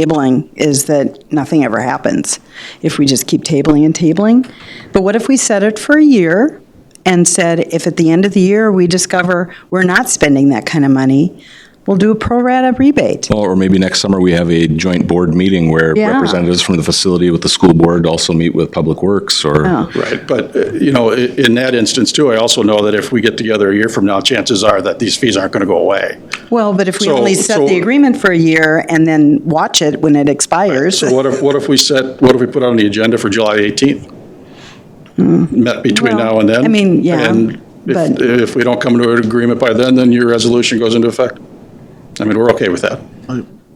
tabling is that nothing ever happens if we just keep tabling and tabling. But what if we set it for a year and said, if at the end of the year we discover we're not spending that kind of money, we'll do a pro rata rebate? Or maybe next summer, we have a joint board meeting where Yeah. representatives from the facility with the school board also meet with Public Works or, Right, but, uh, you know, i- in that instance too, I also know that if we get together a year from now, chances are that these fees aren't going to go away. Well, but if we So- only set so- the agreement for a year and then watch it when it expires, So what if, what if we set, what if we put on the agenda for July 18th? Met between Hmm. Well, now and then? I mean, yeah, And if, but- if we don't come to an agreement by then, then your resolution goes into effect. I mean, we're okay with that.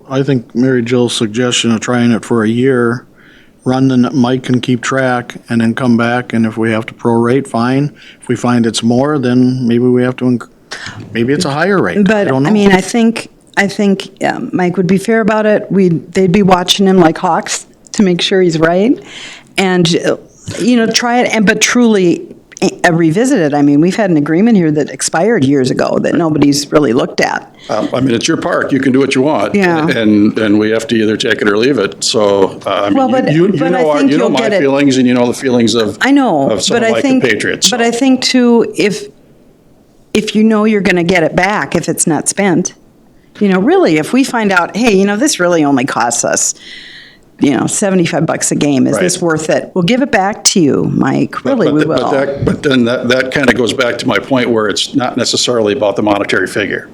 I think Mary Jill's suggestion of trying it for a year, run the, n- Mike can keep track, and then come back, and if we have to prorate, fine. If we find it's more, then maybe we have to, inc- maybe it's a higher rate. But, don't I know. mean, I think, I think um, Mike would be fair about it. We, they'd be watching him like hawks to make sure he's right. And, uh, you know, try it, and, but truly eh, revisit it. I mean, we've had an agreement here that expired years ago that nobody's really looked at. Um, I mean, it's your park, you can do what you want. Yeah. And, and we have to either take it or leave it, so, uh, I Well, mean, but- you, you but I know, our- think you know you'll my get it. feelings and you know the feelings of. I know, Of but someone I like the think, Patriots. but I think too, if, if you know you're going to get it back if it's not spent, you know, really, if we find out, hey, you know, this really only costs us, you know, 75 bucks a game, is this Right. worth it? We'll give it back to you, Mike, really, But we th- but will. that- But then that, that kind of goes back to my point where it's not necessarily about the monetary figure.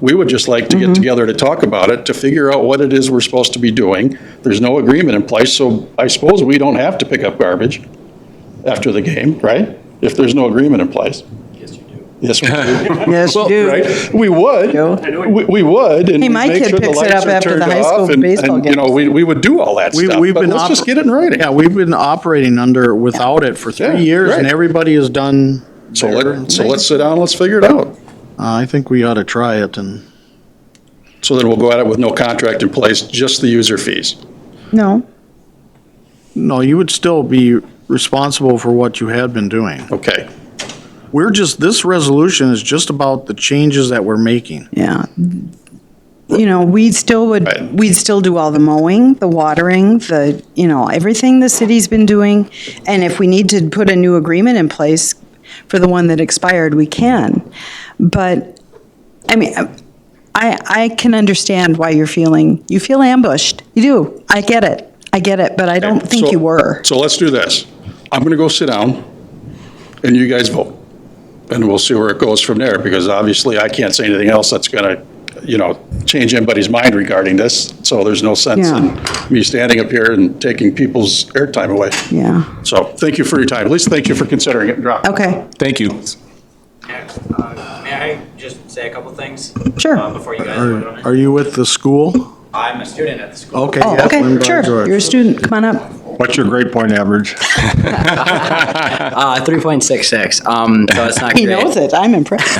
We would just like to Mm-hmm. get together to talk about it, to figure out what it is we're supposed to be doing. There's no agreement in place, so I suppose we don't have to pick up garbage after the game, right? If there's no agreement in place. Yes, you do. Yes, we do. Yes, you do. Right? We would. We, we would. and Hey, my make kid sure the picks it lights up are after the turned high off school and- baseball and, You know, games. we, we would do all that We- stuff, we've but been let's oper- just get it in writing. Yeah, we've been operating under, without it for Yeah, three years, and right. everybody has done So their let, so thing. let's sit down, let's figure it out. Uh, I think we ought to try it, and So then we'll go at it with no contract in place, just the user fees. No, No, you would still be responsible for what you had been doing. Okay. We're just, this resolution is just about the changes that we're making. yeah. You know, we still Right. would, we'd still do all the mowing, the watering, the, you know, everything the city's been doing. And if we need to put a new agreement in place for the one that expired, we can. But, I mean, I, I can understand why you're feeling, you feel ambushed. You do. I get it. I get it, but I don't think So- you were. So let's do this. I'm going to go sit down, and you guys vote. And we'll see where it goes from there, because obviously I can't say anything else that's going to, you know, change anybody's mind regarding this. So there's no sense in me standing up here and taking people's airtime away. Yeah. So thank you for your time. At least thank you for considering it and dropping it. Okay. thank you. Uh, May I just say a couple things? Sure. uh, Before you guys vote on it? Are you with the school? I'm a student at the school. Okay. Oh, yes, okay, Lindblad sure. George. You're a student. Come on up. What's your grade point average? Uh, 3.66, um, so it's not He great. knows it. I'm impressed.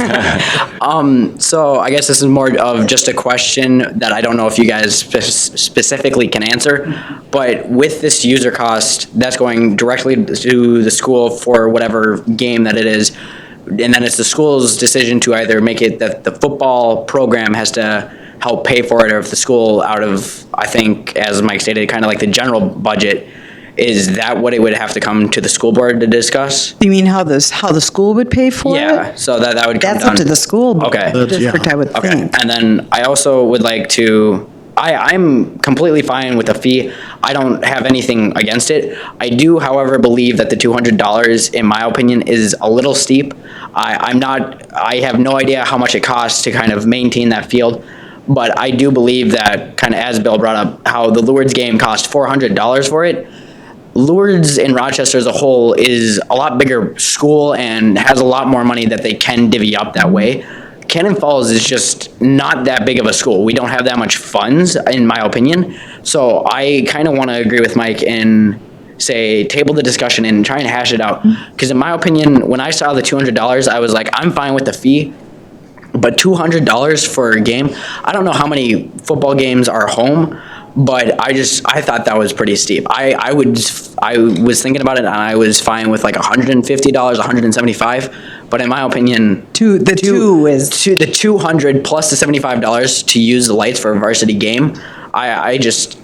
So I guess this is more of just a question that I don't know if you guys spe- specifically can answer. But with this user cost, that's going directly to the school for whatever game that it is. And then it's the school's decision to either make it that the football program has to help pay for it, or if the school out of, I think, as Mike stated, kind of like the general budget, is that what it would have to come to the school board to discuss? You mean how this, how the school would pay for it? Yeah, so that, that would come down. That's up to the school Okay. That's- yeah. district, I would Okay, think. and then I also would like to. I, I'm completely fine with the fee. I don't have anything against it. I do, however, believe that the $200, in my opinion, is a little steep. I, I'm not, I have no idea how much it costs to kind of maintain that field, but I do believe that, kind of as Bill brought up, how the Lourdes game cost $400 for it. Lourdes and Rochester as a whole is a lot bigger school and has a lot more money that they can divvy up that way. Cannon Falls is just not that big of a school. We don't have that much funds, in my opinion. So I kind of want to agree with Mike and say table the discussion and try and hash it out. Because in my opinion, when I saw the two hundred dollars, I was like, I'm fine with the fee. But two hundred dollars for a game, I don't know how many football games are home, but I just I thought that was pretty steep. I I would I was thinking about it and I was fine with like one hundred and fifty dollars, one hundred and seventy five. But in my opinion, Two, the two is, to the two hundred plus the seventy five dollars to use the lights for a varsity game. I, I just